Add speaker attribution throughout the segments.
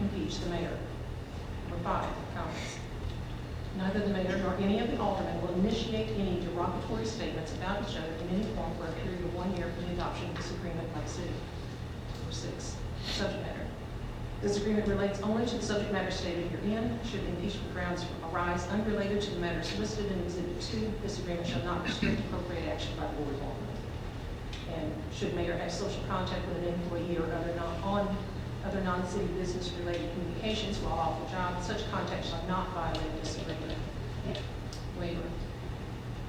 Speaker 1: mayor. Number five, comments. Neither the mayor nor any of the aldermen will initiate any derogatory statements about each other in any form for a period of one year from the adoption of this agreement by the city. Number six, subject matter. This agreement relates only to the subject matter stated herein. Should impeachment grounds arise unrelated to the matters listed in Exhibit 2, this agreement shall not restrict appropriate action by the board of aldermen. And should mayor have social contact with an employee or other non, on, other non-city business-related communications while off the job, such contact shall not violate this agreement. Waiver.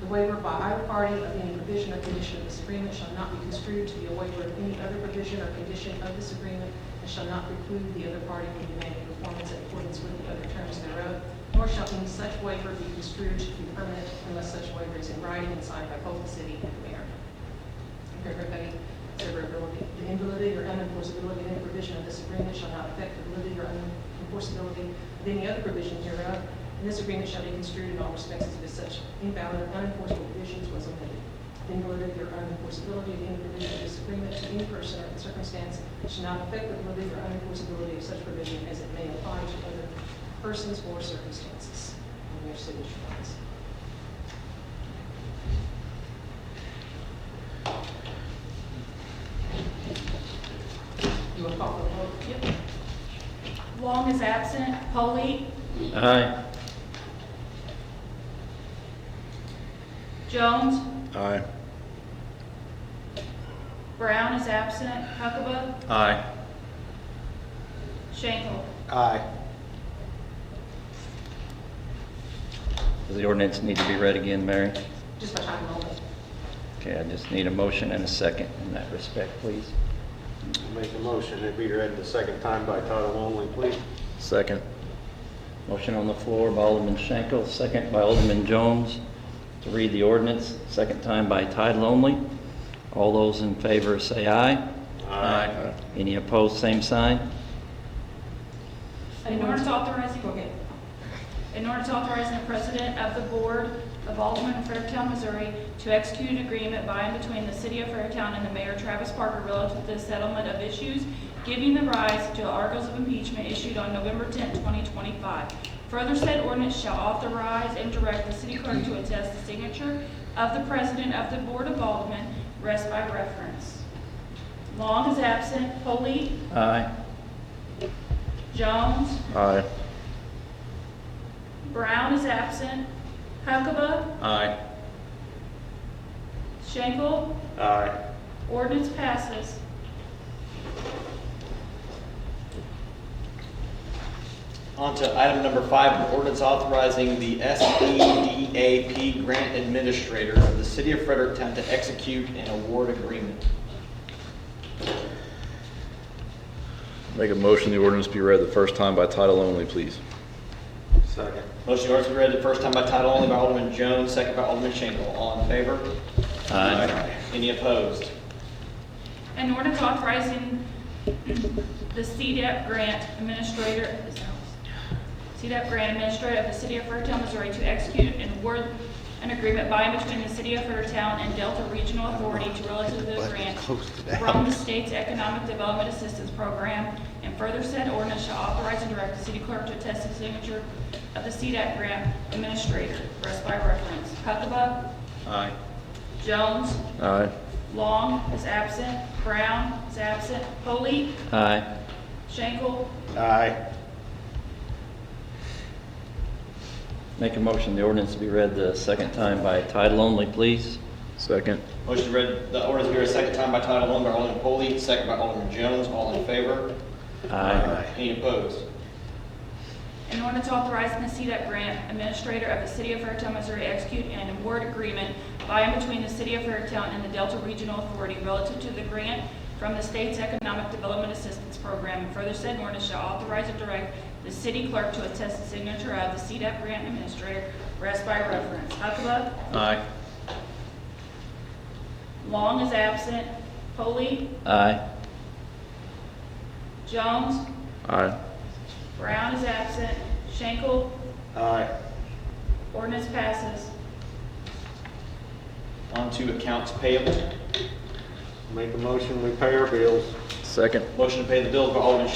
Speaker 1: The waiver by either party of any provision or condition of this agreement shall not be construed to be a waiver of any other provision or condition of this agreement, and shall not preclude the other party from demanding performance in accordance with the other terms thereof, nor shall any such waiver be construed to be permanent unless such waiver is in writing and signed by both the city and the mayor. Everybody, severability, the invalidity or unenforceability of any provision of this agreement shall not affect the validity or unenforceability of any other provision hereof, and this agreement shall be construed in all respects as if such invalid or unenforceable provisions was omitted. The invalidity or unenforceability of any provision of this agreement to any person or circumstance shall not affect the validity or unenforceability of such provision as it may apply to other persons or circumstances. And your signature lines. You will call for the vote? Yep.
Speaker 2: Long is absent. Polley,
Speaker 3: Aye.
Speaker 2: Jones,
Speaker 3: Aye.
Speaker 2: Brown is absent. Huckabee,
Speaker 3: Aye.
Speaker 2: Shankle.
Speaker 4: Aye.
Speaker 3: Does the ordinance need to be read again, Mary?
Speaker 1: Just by title only.
Speaker 3: Okay, I just need a motion and a second in that respect, please.
Speaker 4: Make a motion that be read the second time by title only, please.
Speaker 3: Second. Motion on the floor by Alderman Schenkel, second by Alderman Jones to read the ordinance, second time by title only. All those in favor say aye.
Speaker 4: Aye.
Speaker 3: Any opposed, same sign?
Speaker 2: An ordinance authorizing,
Speaker 1: Okay.
Speaker 2: an ordinance authorizing the president of the board of Alderman of Fairtown, Missouri to execute an agreement by and between the city of Fairtown and the mayor Travis Parker relative to the settlement of issues giving the rise to articles of impeachment issued on November 10, 2025. Further said ordinance shall authorize and direct the city clerk to attest the signature of the president of the board of Alderman, rest by reference. Long is absent. Polley,
Speaker 3: Aye.
Speaker 2: Jones,
Speaker 3: Aye.
Speaker 2: Brown is absent. Huckabee,
Speaker 3: Aye.
Speaker 2: Schenkel,
Speaker 4: Aye.
Speaker 2: ordinance passes.
Speaker 5: On to item number five, an ordinance authorizing the E SEDAP grant administrator of the city of Fredericktown to execute an award agreement.
Speaker 6: Make a motion the ordinance be read the first time by title only, please.
Speaker 4: Second.
Speaker 5: Motion to ordinance be read the first time by title only by Alderman Jones, second by Alderman Schenkel. All in favor?
Speaker 3: Aye.
Speaker 5: Any opposed?
Speaker 2: An ordinance authorizing the CDAP grant administrator, CDAP grant administrator of the city of Fairtown, Missouri to execute and award an agreement by and between the city of Fairtown and Delta Regional Authority to relative to the grant from the state's Economic Development Assistance Program, and further said ordinance shall authorize and direct the city clerk to attest the signature of the CDAP grant administrator, rest by reference. Huckabee,
Speaker 3: Aye.
Speaker 2: Jones,
Speaker 6: Aye.
Speaker 2: Long is absent, Brown is absent, Polley,
Speaker 3: Aye.
Speaker 2: Schenkel,
Speaker 4: Aye.
Speaker 3: Make a motion the ordinance be read the second time by title only, please.
Speaker 6: Second.
Speaker 5: Motion to read the ordinance be read a second time by title only by Alderman Polley, second by Alderman Jones. All in favor?
Speaker 3: Aye.
Speaker 5: Any opposed?
Speaker 2: an ordinance authorizing the CDEP grant administrator of the city of Fairtown, Missouri to execute an award agreement by and between the city of Fairtown and the Delta Regional Authority relative to the grant from the state's Economic Development Assistance Program, and further said ordinance shall authorize and direct the city clerk to attest the signature of the CDEP grant administrator, rest by reference. Huckabee,
Speaker 3: Aye.
Speaker 2: Long is absent, Polley,
Speaker 3: Aye.
Speaker 2: Jones,
Speaker 6: Aye.
Speaker 2: Brown is absent, Schenkel,
Speaker 4: Aye.
Speaker 2: Ordinance passes.
Speaker 5: On to accounts payable.
Speaker 4: Make a motion, we pay our bills.
Speaker 6: Second.
Speaker 5: Motion to pay the bills by Alderman